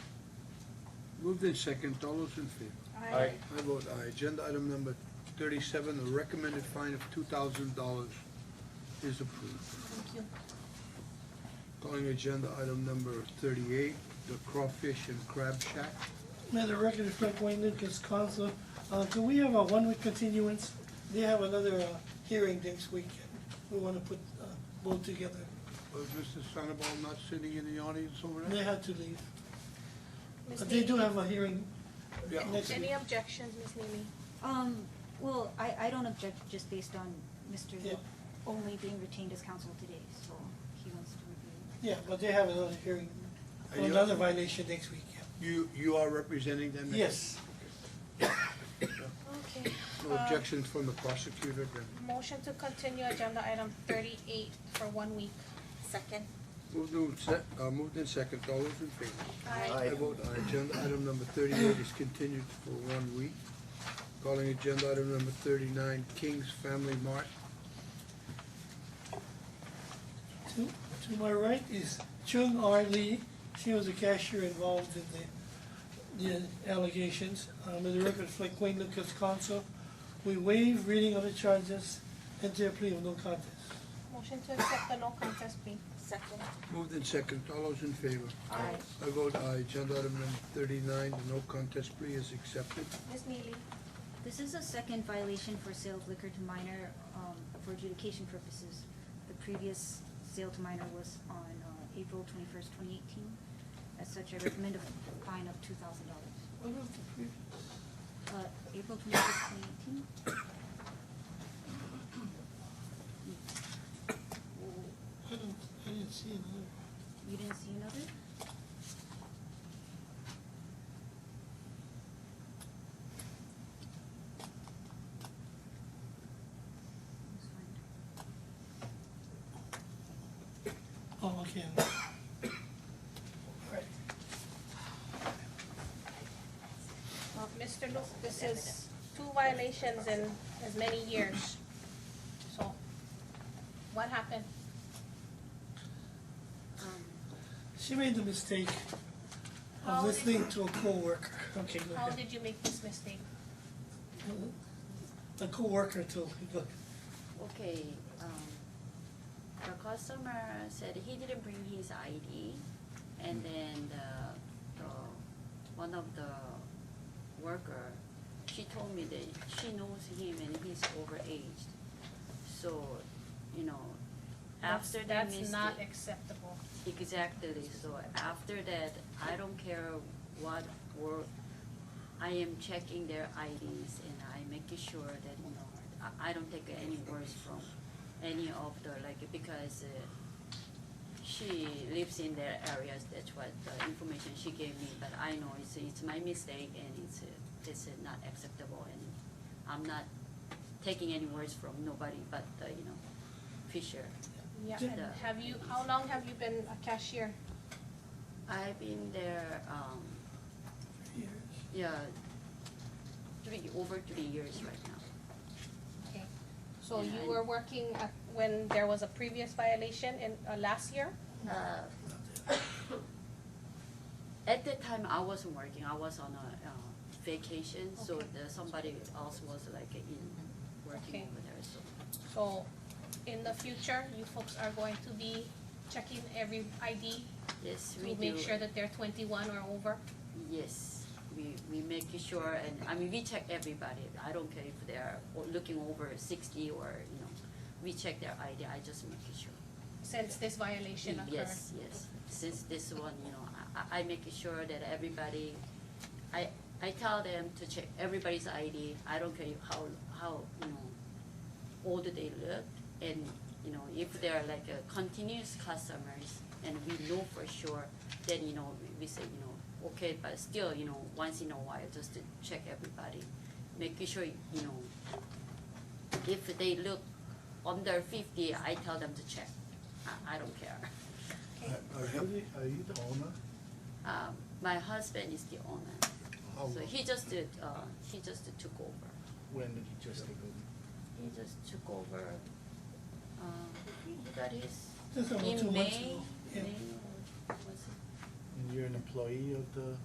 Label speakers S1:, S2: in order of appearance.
S1: Moved in second, all those in favor?
S2: Aye.
S1: I vote aye. Agenda item number thirty-seven, the recommended fine of two thousand dollars is approved.
S2: Thank you.
S1: Calling agenda item number thirty-eight, the Crawfish and Crab Shack.
S3: May the record reflect Wayne Lucas, counsel. Uh, do we have a one-week continuance? They have another, uh, hearing next week. We wanna put, uh, both together.
S1: Was Mr. Sandoval not sitting in the audience over
S3: They
S1: there?
S3: had to leave.
S2: Ms.
S3: But they do
S2: Neely,
S3: have a hearing
S1: Yeah.
S3: next week.
S2: any objections, Ms. Neely?
S4: Um, well, I, I don't object just based on Mr.
S3: Yeah.
S4: only being retained as counsel today, so he wants to review.
S3: Yeah, but they have another hearing,
S1: Are you-
S3: another violation next week, yeah.
S1: You, you are representing them?
S3: Yes.
S2: Okay. Uh,
S1: No objections from the prosecutor then?
S2: Motion to continue agenda item thirty-eight for one week. Second.
S1: Moved in se- uh, moved in second, all those in favor?
S2: Aye.
S1: I vote aye. Agenda item number thirty-eight is continued for one week. Calling agenda item number thirty-nine, King's Family Mart.
S3: To, to my right is Chung R. Lee. She was a cashier involved in the, the allegations. Um, in the record reflect Wayne Lucas counsel. We waive reading of the charges, enter a plea of no contest.
S2: Motion to accept the no contest plea. Second.
S1: Moved in second, all those in favor?
S2: Aye.
S1: I vote aye. Agenda item number thirty-nine, the no contest plea is accepted.
S2: Ms. Neely?
S4: This is a second violation for sale of liquor to minor, um, for adjudication purposes. The previous sale to minor was on, uh, April twenty-first, twenty eighteen. As such, I recommend a fine of two thousand dollars.
S3: What was the previous?
S4: Uh, April twenty-first, twenty eighteen?
S3: oh, I didn't, I didn't see another.
S4: You didn't see another? Let's find.
S3: Oh, okay. All right.
S2: Uh, Mr. Luke, this is two violations in as many years. So, what happened?
S4: Um,
S3: She made the mistake
S2: How
S3: of
S2: did-
S3: listening to a coworker. Okay, go
S2: How
S3: ahead.
S2: did you make this mistake?
S3: The coworker told me, go ahead.
S5: Okay, um, the customer said he didn't bring his ID, and then the, the, one of the worker, she told me that she knows him and he's overaged. So, you know, after they
S2: That's-
S5: missed
S2: That's not
S5: it-
S2: acceptable.
S5: Exactly, so after that, I don't care what work, I am checking their IDs and I making sure that, you know, I, I don't take any words from any of the, like, because uh, she lives in their areas, that's what the information she gave me, but I know it's, it's my mistake and it's, uh, it's uh, not acceptable and I'm not taking any words from nobody but, uh, you know, Fisher.
S2: Yeah,
S3: Ju-
S2: and have you, how long have you been a cashier?
S5: I've been there, um,
S3: Years.
S5: Yeah, three, over three years right now.
S2: Okay. So
S5: Yeah,
S2: you
S5: I-
S2: were working at, when there was a previous violation in, uh, last year?
S5: Uh, At that time, I wasn't working, I was on a, uh, vacation, so
S2: Okay.
S5: the, somebody else was like in,
S2: Okay.
S5: working over there, so.
S2: So in the future, you folks are going to be checking every ID
S5: Yes,
S2: to
S5: we do.
S2: make sure that they're twenty-one or over?
S5: Yes, we, we make sure, and, I mean, we check everybody, I don't care if they're o- looking over sixty or, you know, we check their ID, I just make sure.
S2: Since this violation occurred?
S5: Yes, yes. Since this one, you know, I, I make sure that everybody, I, I tell them to check everybody's ID. I don't care how, how, you know, old they look. And, you know, if they're like a continuous customers and we know for sure, then, you know, we- we say, you know, okay, but still, you know, once in a while, just to check everybody. Making sure, you know, if they look under fifty, I tell them to check. I, I don't care.
S6: Are you,
S1: Uh,
S6: are you the owner?
S5: Um, my husband is the owner,
S3: Oh.
S6: How,
S5: so he just did, uh, he just took over.
S6: when did you just take over?
S5: He just took over. Um, he got his
S3: Just about two
S5: in
S3: months
S5: May.
S3: ago.
S5: May
S3: Yeah.
S5: or was it?
S6: And you're an employee of the